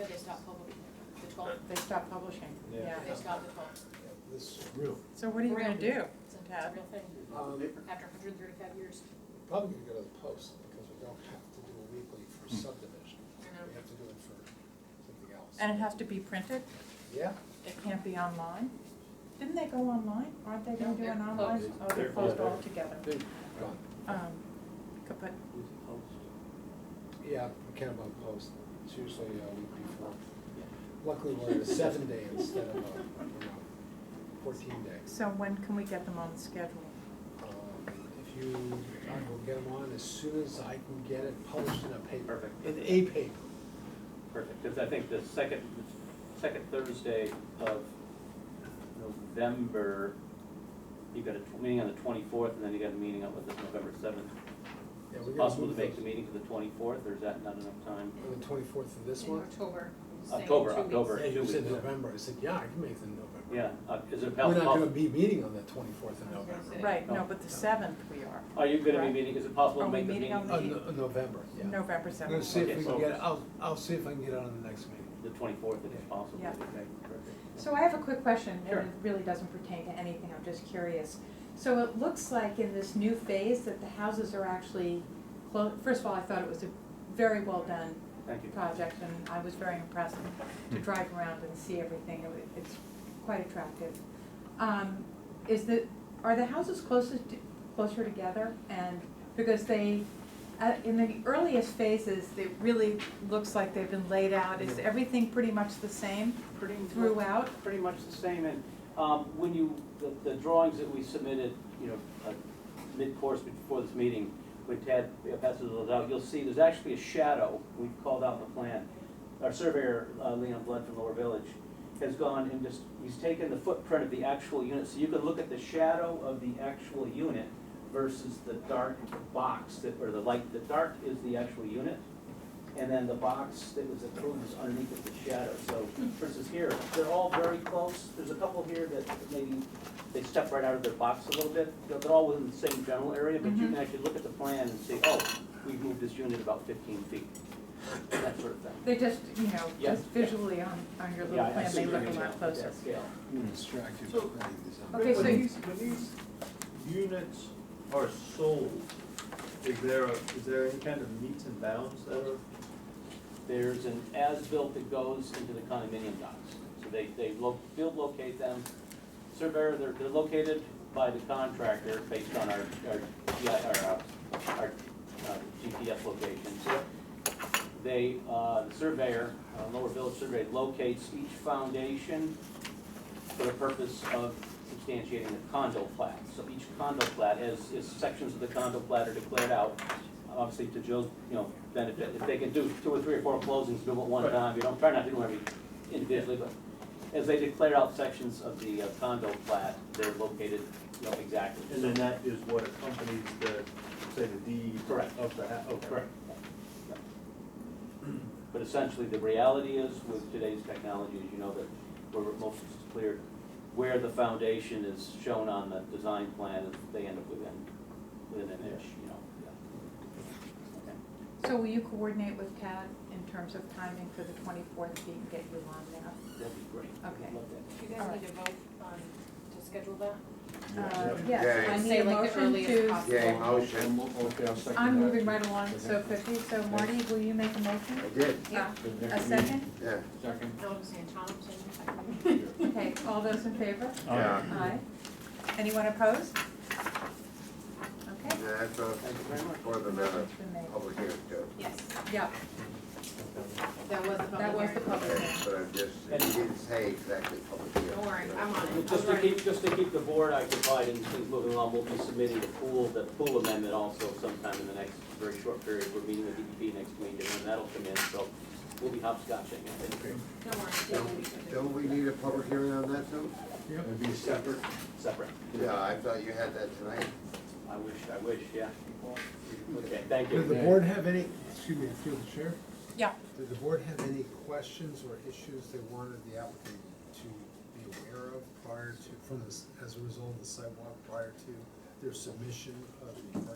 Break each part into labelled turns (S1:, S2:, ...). S1: stopped publishing, the twelfth,
S2: They stopped publishing,
S3: Yeah.
S2: yeah.
S1: they stopped the twelfth.
S3: This is real.
S2: So what are you gonna do?
S1: It's a, it's a
S2: Ted?
S1: real thing,
S3: Um,
S1: after hundred and thirty-five years.
S3: Probably gonna go to the post, because we don't have to do a weekly for
S4: Hmm.
S3: subdivision, we have to do it for something else.
S2: And it has to be printed?
S3: Yeah,
S2: It can't be online? Didn't they go online? Aren't they gonna do
S1: No,
S2: an
S1: they're
S2: online?
S1: closed.
S2: Oh, they're
S4: They're-
S2: closed
S4: yeah, they're-
S2: altogether.
S3: they've gone,
S2: Um, kaput.
S3: yeah, Kennebunk Post, it's usually a week before. Luckily, we're at a seven day instead of a, you know, fourteen day.
S2: So when can we get them on the schedule?
S3: Um, If you, I will get them on as soon as I can get it published in a paper.
S4: Perfect.
S3: In a paper.
S4: Perfect, because I think the second, second Thursday of November, you got a tw- meeting on the twenty-fourth, and then you got a meeting on the November seventh.
S3: Yeah,
S4: Is
S3: we're
S4: it
S3: gonna
S4: possible to
S3: move
S4: make the
S3: those.
S4: meeting for the twenty-fourth, or is that not enough time?
S3: On the twenty-fourth of this
S1: In
S3: one?
S1: October, saying two
S4: October,
S1: weeks.
S4: October.
S3: Yeah, you
S4: two
S3: said
S4: weeks.
S3: November, I said, yeah, I can make it in November.
S4: Yeah, uh, is it
S3: We're not gonna
S4: possible,
S3: be meeting on the twenty-fourth of
S1: I was gonna
S3: November.
S1: say.
S2: Right, no, but the seventh we are,
S4: are you gonna be
S2: Right.
S4: meeting, is it possible
S2: Are
S4: to
S2: we
S4: make the
S2: meeting
S4: meeting?
S2: on
S3: Uh, no- November, yeah.
S2: November
S3: I'm gonna
S2: seventh.
S3: see if we
S4: Okay.
S3: can get, it. I'll, I'll see if I can get it on the next meeting.
S4: The twenty-fourth, if it's possible.
S2: Yeah.
S4: Okay, perfect.
S5: So I have a quick question, and
S4: Sure.
S5: it really doesn't pertain to anything, I'm just curious. So it looks like in this new phase that the houses are actually clo- first of all, I thought it was a very well done
S4: Thank you.
S5: project, and I was very impressed to
S4: Hmm.
S5: drive around and see everything, It wa- it's quite attractive. Um, is the, are the houses closest, to- closer together, and, because they, uh, in the earliest phases, it really looks like they've been laid out, is everything pretty much the same
S4: Pretty
S5: throughout?
S4: pretty much the same, and um, when you, the- the drawings that we submitted, you know, uh, mid-course before this meeting, when Tad passes those out, you'll see there's actually a shadow, we've called out in the plan. Our surveyor, uh, Leon Blood from Lower Village, has gone and just, he's taken the footprint of the actual unit, so you can look at the shadow of the actual unit versus the dark box that, or the light, the dark is the actual unit, and then the box that was approved is underneath of the shadow, so versus here, they're all very close, there's a couple here that maybe they step right out of their box a little bit, they're they're all within the same general area, but you can actually look at the plan and say, oh, we've moved this unit about fifteen feet, that sort of thing.
S5: They just, you know,
S4: Yeah.
S5: just visually on, on your
S4: Yeah,
S5: little
S4: I- I
S5: plan,
S4: see
S5: they
S4: what
S5: look
S4: you're
S5: a lot
S4: saying.
S5: closer.
S4: That scale.
S3: Distracted
S6: So-
S3: from writing this out.
S5: Okay,
S6: When
S5: so you-
S6: these, when these units are sold, is there, a- is there any kind of meets and bounds that are?
S4: There's an as-built that goes into the condominium docs. So they, they lo- field locate them, surveyor, they're, they're located by the contractor based on our, our, GI our, uh, our uh, GPS locations. They, uh, the surveyor, uh, Lower Village Survey locates each foundation for the purpose of substantiating the condo plat. So each condo plat, as, as sections of the condo plat are declared out, obviously to Joe's, you know, benefit, if they can do two or three or four closings, do it one
S6: Right.
S4: time, you don't, try not to do every individually, but as they declare out sections of the uh, condo plat, they're located, you know, exactly.
S6: And then that is what accompanies the, say, the deed.
S4: Correct.
S6: Of the, ha- okay.
S4: Correct. Yeah. But essentially, the reality is with today's technology, as you know, that where most is clear, where the foundation is shown on the design plan, they end up within, within an inch, you know. yeah.
S5: So will you coordinate with Tad in terms of timing for the twenty-fourth, so you can get you on now?
S4: That'd be great.
S5: Okay.
S4: Love that.
S1: Do you guys need to vote on, to schedule that?
S5: Uh,
S7: Yeah.
S5: Yes, I need
S1: Say
S5: a
S1: like the
S5: motion
S1: earliest
S5: to,
S1: possible.
S7: Yay, motion.
S3: Okay, I'll second
S5: I'm
S3: that.
S5: moving right along so quickly, so Marty, will you make a
S7: I
S5: motion?
S7: did,
S1: Yeah.
S5: A second?
S7: yeah.
S1: No, I'm saying Thompson.
S5: Okay, all those in favor?
S7: Yeah.
S5: Aye. Anyone opposed? Okay.
S7: That's a,
S4: Thank you very much.
S7: for the minutes,
S5: Motion's been made.
S7: public hearing, too.
S1: Yes,
S5: Yeah,
S1: that was the
S5: that was the
S1: public
S5: public
S7: Okay,
S5: hearing.
S7: but I'm just,
S4: And-
S7: you didn't say exactly public hearing.
S1: hearing. Don't worry,
S7: so-
S1: I'm on it.
S4: Just to
S1: I'm ready.
S4: keep, just to keep the board occupied and things moving along, we'll be submitting the pool, the pool amendment also sometime in the next very short period. We're meeting with DEP next week, and then that'll come in, so we'll be hopscotching, I think.
S1: Don't worry, Dave will be
S7: Don't- Don't we need a public hearing on that, too?
S3: Yep.
S6: It'd be separate.
S4: separate.
S7: Yeah, I thought you had that tonight.
S4: I wish, I wish, yeah. Okay, thank
S3: Did the
S4: you.
S3: board have any, excuse me, through the chair,
S2: Yeah,
S3: did the board have any questions or issues they wanted the applicant to be aware of prior to, from this, as a result of the sidewalk, prior to their submission of the, of the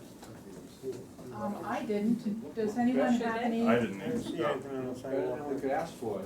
S3: pool?
S5: Um, I Um, didn't, does anyone have any?
S8: I didn't even
S6: Yeah, I don't know if I-
S9: Better than we could ask for.